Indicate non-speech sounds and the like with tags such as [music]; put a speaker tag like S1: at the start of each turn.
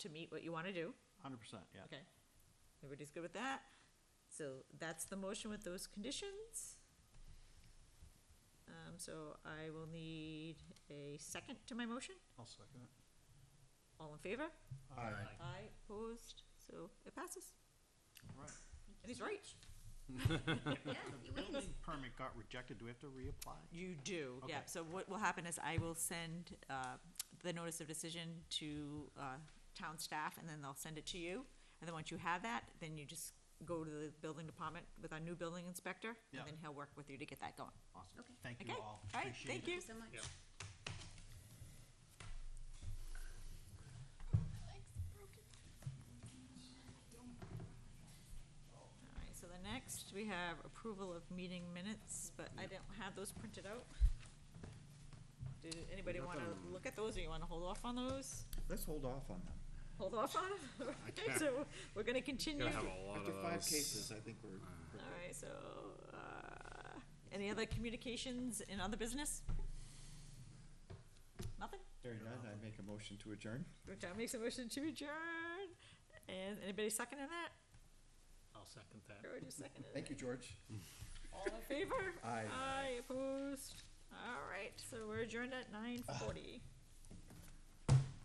S1: to meet what you want to do.
S2: Hundred percent, yeah.
S1: Okay. Everybody's good with that? So that's the motion with those conditions. Um, so I will need a second to my motion.
S2: I'll second it.
S1: All in favor?
S2: Aye.
S1: Aye, opposed, so it passes.
S2: Right.
S1: And he's right.
S2: The building permit got rejected, do we have to reapply?
S1: You do, yeah.
S2: Okay.
S1: So what will happen is I will send, uh, the notice of decision to, uh, town staff, and then they'll send it to you. And then once you have that, then you just go to the building department with our new building inspector,
S2: Yeah.
S1: and then he'll work with you to get that going.
S2: Awesome,
S3: Okay.
S2: thank
S1: Okay,
S2: you
S1: all
S2: all,
S1: right,
S2: appreciate it.
S1: thank you.
S3: so much.
S1: All right, so the next, we have approval of meeting minutes, but I don't have those printed out. Did anybody
S2: got
S1: want to
S2: them.
S1: look at those, or you want to hold off on those?
S4: Let's hold off on them.
S1: Hold off on them? Okay, [laughs] so we're going to continue.
S5: Gonna have a lot
S4: After
S5: of
S4: five
S5: those.
S4: cases, I think we're,
S1: All right, so, uh, any other communications in other business? Nothing?
S4: hearing none, I make a motion to adjourn.
S1: John makes a motion to adjourn, and anybody seconding that?
S5: I'll second that.
S1: Or just seconded?
S4: Thank you, George.
S1: All in favor?
S4: Aye.
S1: Aye, opposed? All right, so we're adjourned at nine forty.